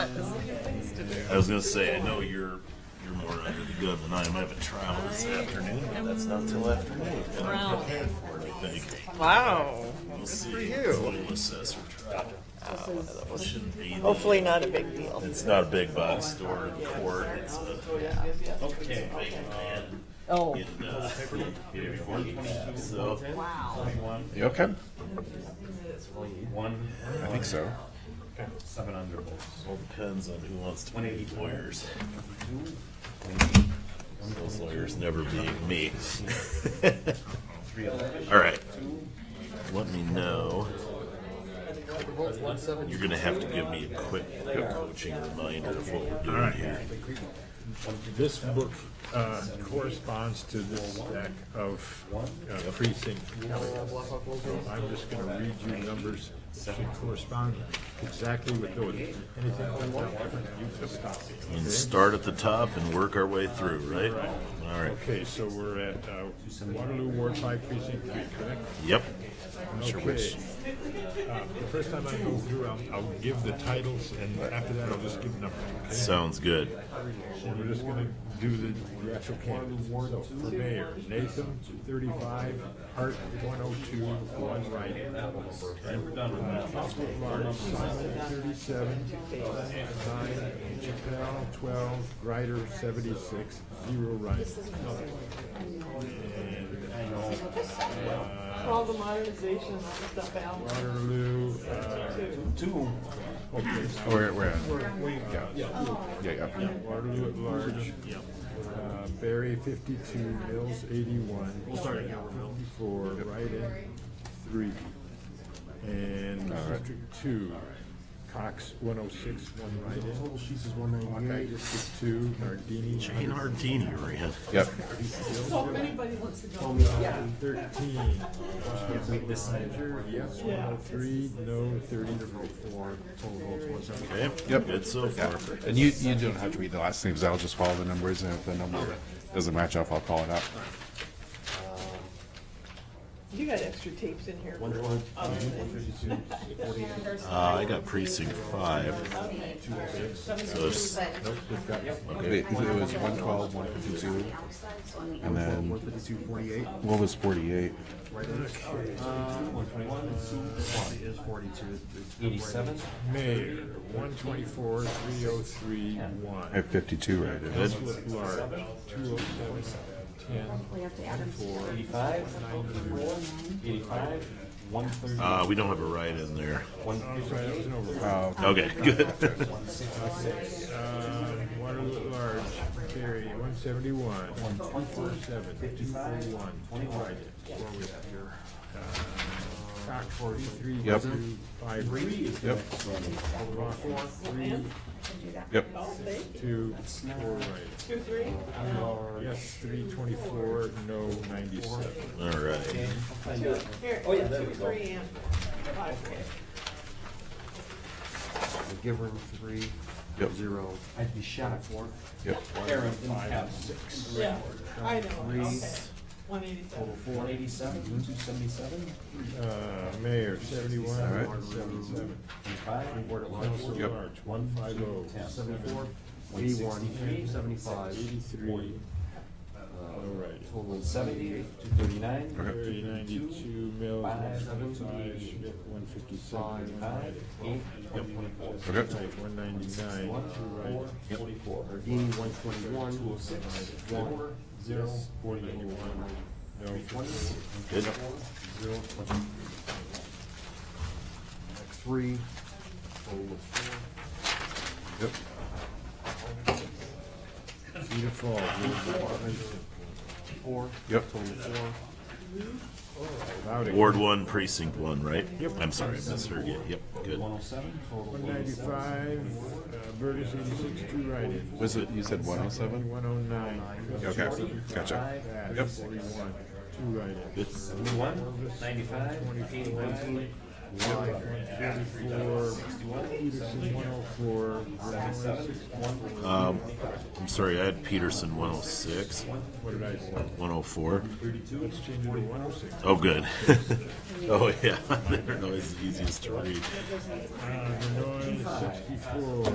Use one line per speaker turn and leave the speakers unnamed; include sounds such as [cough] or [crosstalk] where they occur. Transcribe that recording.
I was gonna say, I know you're you're more under the gun than I am. I have a trial this afternoon, but that's not till afternoon. And I'm prepared for it, I think.
Wow.
We'll
Good
see.
for
It's a
you.
little assessor trial. Shouldn't be the-
Hopefully not a big deal.
It's not a big box store in court. It's a okay. big man.
Oh,
in, uh, yeah, so
You okay?
One,
I think so.
seven under bolts.
all depends on who wants to be lawyers. Those lawyers never being me.
Three eleven.
All right. Let me know. You're gonna have to give me a quick coaching reminder of what we're doing here.
This book uh, corresponds to this stack of uh, precinct counties. So I'm just gonna read you numbers that correspond exactly with those. Anything left out different, you just copy,
And
okay?
start at the top and work our way through, right? All right.
Okay, so we're at uh, Waterloo Ward Five Precinct Three, correct?
Yep.
Okay. Uh, The first time I go through, I'll, I'll give the titles and after that I'll just give numbers, okay?
Sounds good.
And We're just gonna do the, the actual candidates. So for mayor, Nathan, thirty-five, Hart, one oh two, one right. Council March, Simon, thirty-seven, nine, Chappelle, twelve, Ryder, seventy-six, zero right. And, uh,
all the modernization stuff out.
Waterloo, uh,
Two.
okay,
Oh, we're, we're,
yeah,
yeah, yeah, yeah.
Waterloo at large. Uh, Barry fifty-two, Mills eighty-one. We'll start at Gilbertville. Fifty-four, write-in, three. And District two, Cox one oh six, one write-in. Total sheets is one ninety-eight. District two, Nardini.
Jane Hardini ran.
Yep.
Thirteen. This Yes, one oh three, no thirty-four, total votes one seventy.
Okay.
Yep.
Good so far.
And you, you don't have to read the last names. I'll just follow the numbers, and if the number doesn't match up, I'll call it out.
You got extra tapes in here.
Uh, I got precinct five.
oh
So it's-
Wait, it was 112, 152, and then what was 48?
One twenty-one and two. One is forty-two. Eighty-seven.
Mayor, one twenty-four, three oh three, one.
I have 52 right in.
Council at large, two oh seven, ten, four,
Eighty-five. Eighty-five. One thirty.
uh, we don't have a write in there.
One
I'm sorry, that was an override.
Oh,
Okay. [laughs] Good.
sixty-six.
Uh, Waterloo at large, Barry, one seventy-one, two four seven, fifty-four, one, two write-ins, four with here. Uh, Cox, forty-three,
Yep.
two, five, three,
yep,
Override, four, three,
yep.
two, four write-ins.
Two, three.
Yes, three twenty-four, no ninety-seven.
All right.
Here, oh yeah, two, three, and five.
Give her three,
Yep.
zero,
I'd be shot at four.
Yep.
Aaron, five, six.
Yeah, I know.
Three.
Okay. One eighty-seven.
Total four. Eighty-seven, two seventy-seven.
Uh, Mayor, seventy-one,
All right.
one seventy-seven.
Eighty-five. Reward at large.
Council at
Yep.
large, one five oh,
Seventy-four.
eighty-one,
163,
seventy-five,
eighty-three, all right.
total
Seventy, two thirty-nine.
Thirty ninety-two mills, one
Five, seven,
fifty-five,
eight,
Schmidt, one fifty-seven,
Five, five, eight, one twenty-four.
Okay.
one ninety-nine,
One, two,
right,
four, forty-four.
Ardini, one twenty-one,
Two oh six, four, zero, forty-one.
no,
Twenty,
Good.
zero, twenty.
three, total of four.
Yep.
Cedar Falls,
Four.
Yep.
Total of four.
Loudon.
Ward one, precinct one, right?
Yep.
I'm sorry, I misheard you. Yep. Good.
One oh seven, total.
One ninety-five, uh, Burgess eighty-six, two write-ins.
Was it, you said 107?
One oh nine.
Okay, gotcha.
Bad, forty-one, two write-ins.
Good.
One, ninety-five, eighty-one,
Forty-four, Peterson, one oh four, Vermillion, six,
Um, I'm sorry, I had Peterson 106,
what did I say?
104.
Let's change it to one oh six.
Oh, good. [laughs] oh, yeah. They're always the easiest to read.
Uh, Vermillion, sixty-four,